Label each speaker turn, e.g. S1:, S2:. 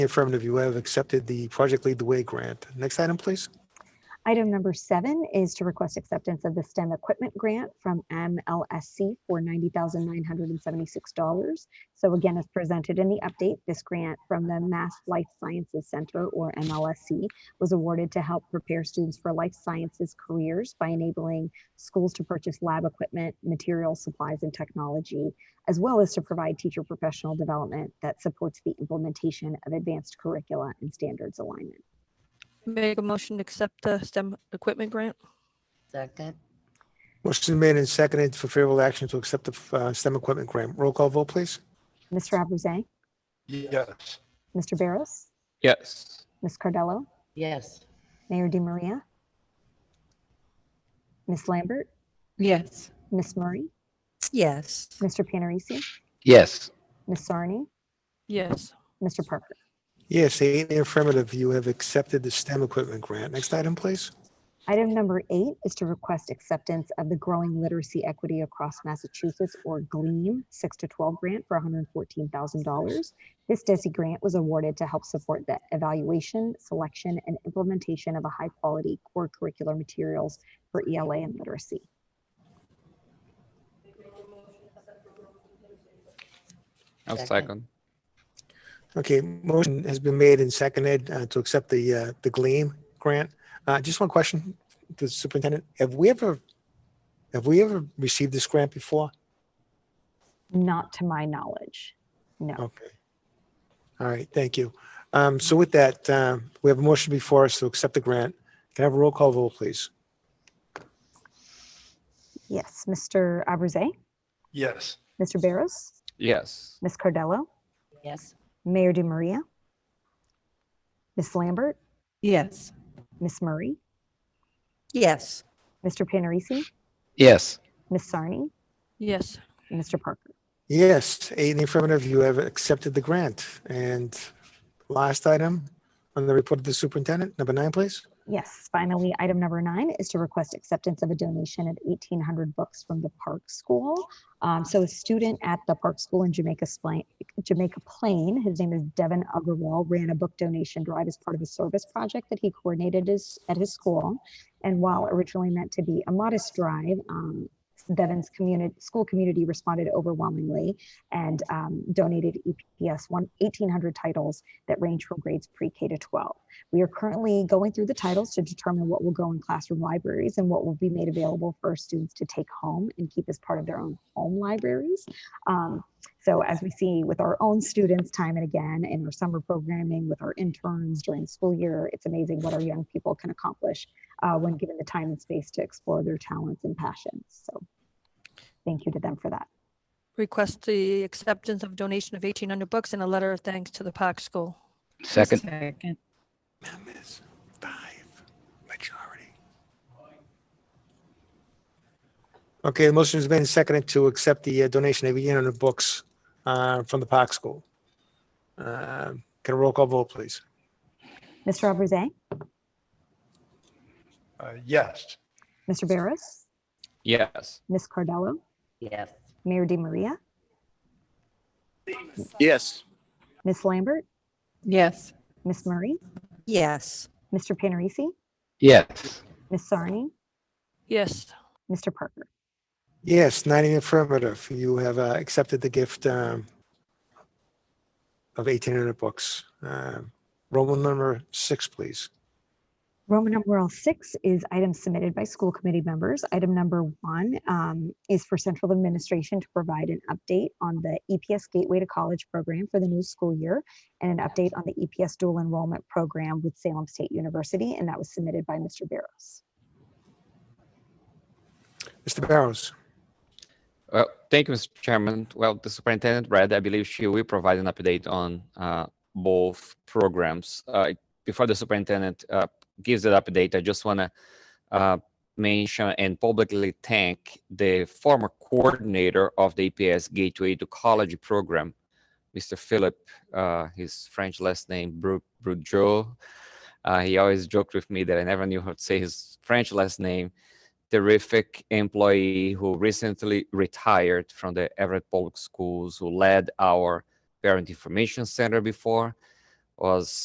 S1: Affirmative, you have accepted the Project Lead the Way grant. Next item, please.
S2: Item number seven is to request acceptance of the STEM equipment grant from MLSC for $90,976. So again, as presented in the update, this grant from the Mass Life Sciences Center, or MLSC, was awarded to help prepare students for life sciences careers by enabling schools to purchase lab equipment, materials, supplies, and technology, as well as to provide teacher professional development that supports the implementation of advanced curricula and standards alignment.
S3: Make a motion to accept the STEM equipment grant.
S4: Second,
S1: Motion made and seconded for favorable action to accept the uh, STEM equipment grant. Roll call vote, please.
S2: Mr. Abraze,
S5: Yes.
S2: Mr. Barros,
S6: Yes.
S2: Ms. Cardello,
S4: yes.
S2: Mayor Di Maria, Ms. Lambert,
S7: Yes.
S2: Ms. Murray,
S7: Yes.
S2: Mr. Panarisi,
S6: Yes.
S2: Ms. Sarni,
S3: Yes.
S2: Mr. Parker.
S1: Yes, eight in the affirmative, you have accepted the STEM equipment grant. Next item, please.
S2: Item number eight is to request acceptance of the Growing Literacy Equity Across Massachusetts, or GLEAM, 6 to 12 grant for $114,000. This DESI grant was awarded to help support the evaluation, selection, and implementation of a high-quality core curricular materials for ELA and literacy.
S6: I'll
S4: Second.
S6: second.
S1: Okay, motion has been made and seconded uh, to accept the, uh, the Gleam grant. Uh, Just one question to the superintendent. Have we ever, have we ever received this grant before?
S2: Not to my knowledge, no.
S1: Okay. All right, thank you. Um, So with that, um, we have a motion before us to accept the grant. Can I have a roll call vote, please?
S2: Yes, Mr. Abraze,
S5: Yes.
S2: Mr. Barros,
S6: Yes.
S2: Ms. Cardello,
S4: Yes.
S2: Mayor Di Maria, Ms. Lambert,
S7: Yes.
S2: Ms. Murray,
S7: Yes.
S2: Mr. Panarisi,
S6: Yes.
S2: Ms. Sarni,
S3: Yes.
S2: and Mr. Parker.
S1: Yes, eight in the affirmative, you have accepted the grant. And last item on the report of the superintendent, number nine, please.
S2: Yes, finally, item number nine is to request acceptance of a donation of 1,800 books from the Park School. Um, So a student at the Park School in Jamaica Splain, Jamaica Plain, his name is Devin Agarwal, ran a book donation drive as part of a service project that he coordinated his- at his school. And while originally meant to be a modest drive, um, Devin's community, school community responded overwhelmingly and um, donated EPS one- 1,800 titles that range from grades pre-K to 12. We are currently going through the titles to determine what will go in classroom libraries and what will be made available for students to take home and keep as part of their own home libraries. Um, so as we see with our own students time and again in our summer programming with our interns during the school year, it's amazing what our young people can accomplish uh, when given the time and space to explore their talents and passions. So thank you to them for that.
S3: Request the acceptance of donation of 1,800 books and a letter of thanks to the Park School.
S6: Second.
S7: Second.
S1: Members, five, majority. Okay, the motion has been seconded to accept the uh, donation of 800 books uh, from the Park School. Uh, Can a roll call vote, please?
S2: Mr. Abraze,
S5: Uh, Yes.
S2: Mr. Barros,
S6: Yes.
S2: Ms. Cardello,
S4: Yes.
S2: Mayor Di Maria,
S8: yes,
S2: Ms. Lambert,
S7: Yes.
S2: Ms. Murray,
S7: Yes.
S2: Mr. Panarisi,
S6: Yes.
S2: Ms. Sarni,
S3: Yes.
S2: Mr. Parker.
S1: Yes, nine in the affirmative. You have uh, accepted the gift um, of 1,800 books. Uh, Roman number six, please.
S2: Roman numeral six is items submitted by school committee members. Item number one um, is for central administration to provide an update on the EPS Gateway to College program for the new school year and an update on the EPS dual enrollment program with Salem State University, and that was submitted by Mr. Barros.
S1: Mr. Barrows?
S6: Well, thank you, Mr. Chairman. Well, the superintendent read, I believe she will provide an update on uh, both programs. Uh, Before the superintendent uh, gives that update, I just want to mention and publicly thank the former coordinator of the EPS Gateway to College program, Mr. Philip, uh, his French last name, Bru- Brujo. Uh, He always joked with me that I never knew how to say his French last name terrific employee who recently retired from the Everett Public Schools, who led our Parent Information Center before, was